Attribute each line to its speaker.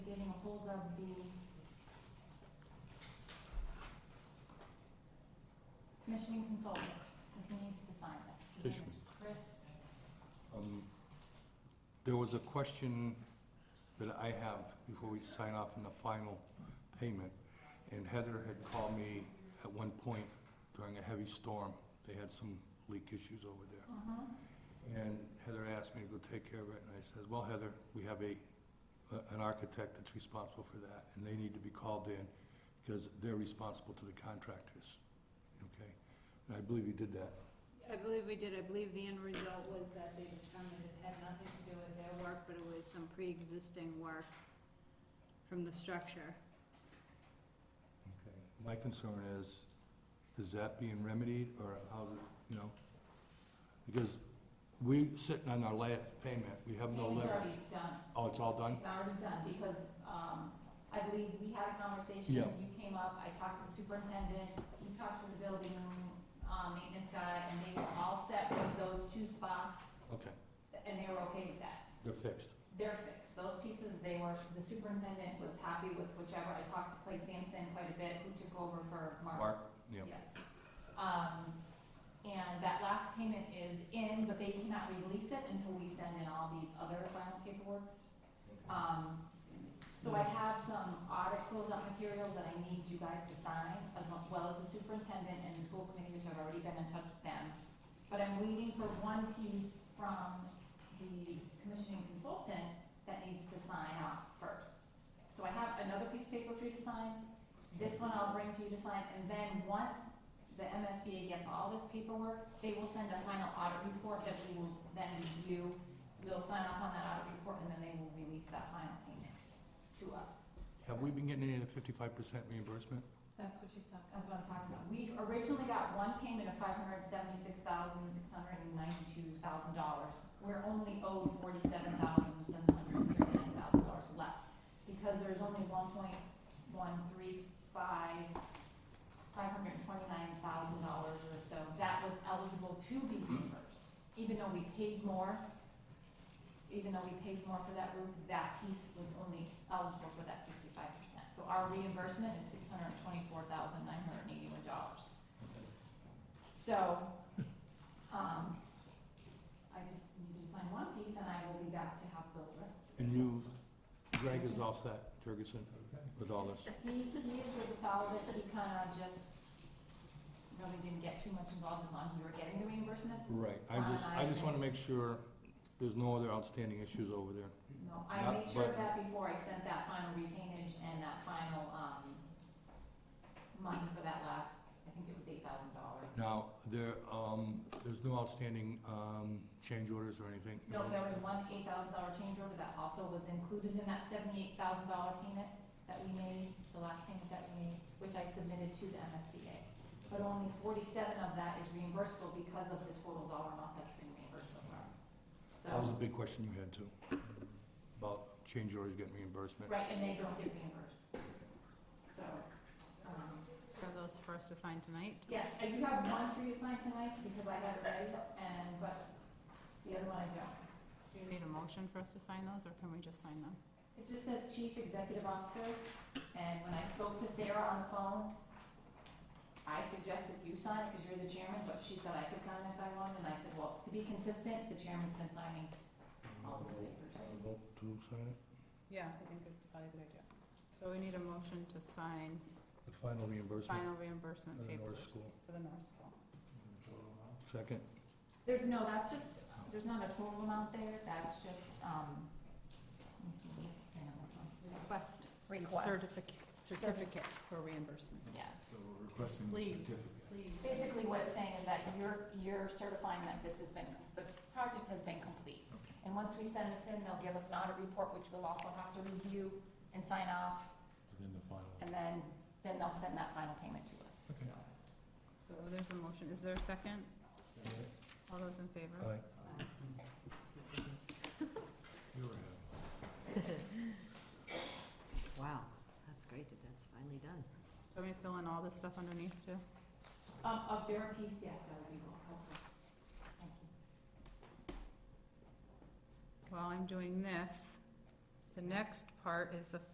Speaker 1: hold of the commissioning consultant, because he needs to sign this. His name is Chris,
Speaker 2: Um, There was a question that I have before we sign off on the final payment, and Heather had called me at one point during a heavy storm. They had some leak issues over there.
Speaker 1: uh-huh,
Speaker 2: And Heather asked me to go take care of it, and I says, well, Heather, we have a, a- an architect that's responsible for that, and they need to be called in, because they're responsible to the contractors, okay? And I believe you did that.
Speaker 3: I believe we did, I believe the end result was that they determined it had nothing to do with their work, but it was some pre-existing work from the structure.
Speaker 2: Okay. My concern is, is that being remedied, or how's it, you know? Because we sitting on our last payment, we have no
Speaker 1: Payment's
Speaker 2: leverage.
Speaker 1: already done.
Speaker 2: Oh, it's all done?
Speaker 1: It's already done, because, um, I believe we had a conversation,
Speaker 2: Yeah.
Speaker 1: you came up, I talked to the superintendent, you talked to the building, um, maintenance guy, and they were all set with those two spots,
Speaker 2: Okay,
Speaker 1: and they were okay with that.
Speaker 2: they're fixed.
Speaker 1: They're fixed, those pieces, they were, the superintendent was happy with whichever, I talked to Clay Sampson quite a bit, who took over for
Speaker 2: Mark? Yeah.
Speaker 1: Yes. Um, and that last payment is in, but they cannot release it until we send in all these other final paperworks. Um, so I have some audit closeout materials that I need you guys to sign, as well as the superintendent and the school committee, which I've already been in touch with them. But I'm waiting for one piece from the commissioning consultant that needs to sign off first. So I have another piece of paper for you to sign, this one I'll bring to you to sign, and then once the MSBA gets all this paperwork, they will send a final audit report that we will then review. We'll sign off on that audit report, and then they will release that final payment to us.
Speaker 2: Have we been getting any of the fifty-five percent reimbursement?
Speaker 3: That's what she's talking
Speaker 1: That's what I'm talking about. We originally got one payment of five hundred seventy-six thousand, six hundred and ninety-two thousand dollars. We're only owed forty-seven thousand, seven hundred and thirty-nine thousand dollars left, because there's only one point one three five, five hundred and twenty-nine thousand dollars or so that was eligible to be reimbursed. Even though we paid more, even though we paid more for that roof, that piece was only eligible for that fifty-five percent. So our reimbursement is six hundred and twenty-four thousand nine hundred and eighty-one dollars. So, um, I just need to sign one piece and I will be back to have those rest.
Speaker 2: And you, Greg is all set, Jurgensen, with all this?
Speaker 1: He, he is with the fellow that he kind of just really didn't get too much involved as long as we were getting the reimbursement.
Speaker 2: Right, I just, I just wanna make sure there's no other outstanding issues over there.
Speaker 1: No, I
Speaker 2: Not-
Speaker 1: made sure of
Speaker 2: but-
Speaker 1: that before I sent that final retainage and that final, um, money for that last, I think it was eight thousand dollars.
Speaker 2: Now, there, um, there's no outstanding, um, change orders or anything?
Speaker 1: No, there was one eight thousand dollar change order that also was included in that seventy-eight thousand dollar payment that we made, the last payment that we made, which I submitted to the MSBA. But only forty-seven of that is reimbursable because of the total dollar amount that's been reimbursed so far.
Speaker 2: That was a
Speaker 1: So,
Speaker 2: big question you had too, about change orders getting reimbursement.
Speaker 1: right, and they don't get reimbursed. So, um,
Speaker 3: about. Are those for us to sign tonight?
Speaker 1: Yes, I do have one for you to sign tonight because I have it ready, and, but the other one I don't.
Speaker 3: Do you need a motion for us to sign those, or can we just sign them?
Speaker 1: It just says Chief Executive Officer, and when I spoke to Sarah on the phone, I suggested you sign it because you're the chairman, but she said I could sign it if I wanted, and I said, well, to be consistent, the chairman's been signing all those papers.
Speaker 2: Vote to sign it?
Speaker 3: Yeah, I think it's probably a good idea. So we need a motion to sign
Speaker 2: The final reimbursement
Speaker 3: final reimbursement
Speaker 2: for the
Speaker 3: papers
Speaker 2: North School.
Speaker 3: for the North School.
Speaker 2: Second,
Speaker 1: There's no, that's just, there's not a total amount there, that's just, um, let me see, we have to sign on this one.
Speaker 3: Request
Speaker 1: Request,
Speaker 3: certificate, certificate for reimbursement.
Speaker 1: yeah.
Speaker 4: So we're requesting the
Speaker 3: Please.
Speaker 4: certificate.
Speaker 3: Please.
Speaker 1: Basically, what it's saying is that you're, you're certifying that this has been, the project has been complete. And once we send this in, they'll give us an audit report, which we'll also have to review and sign off,
Speaker 4: Within the final.
Speaker 1: and then, then they'll send that final payment to us,
Speaker 2: Okay.
Speaker 1: so.
Speaker 3: So there's a motion. Is there a second? All those in favor?
Speaker 2: aye.
Speaker 4: You were ahead.
Speaker 5: Wow, that's great that that's finally done.
Speaker 3: Do we fill in all this stuff underneath too?
Speaker 1: Um, of their piece, yeah, that would be helpful. Thank you.
Speaker 3: While I'm doing this, the next part is the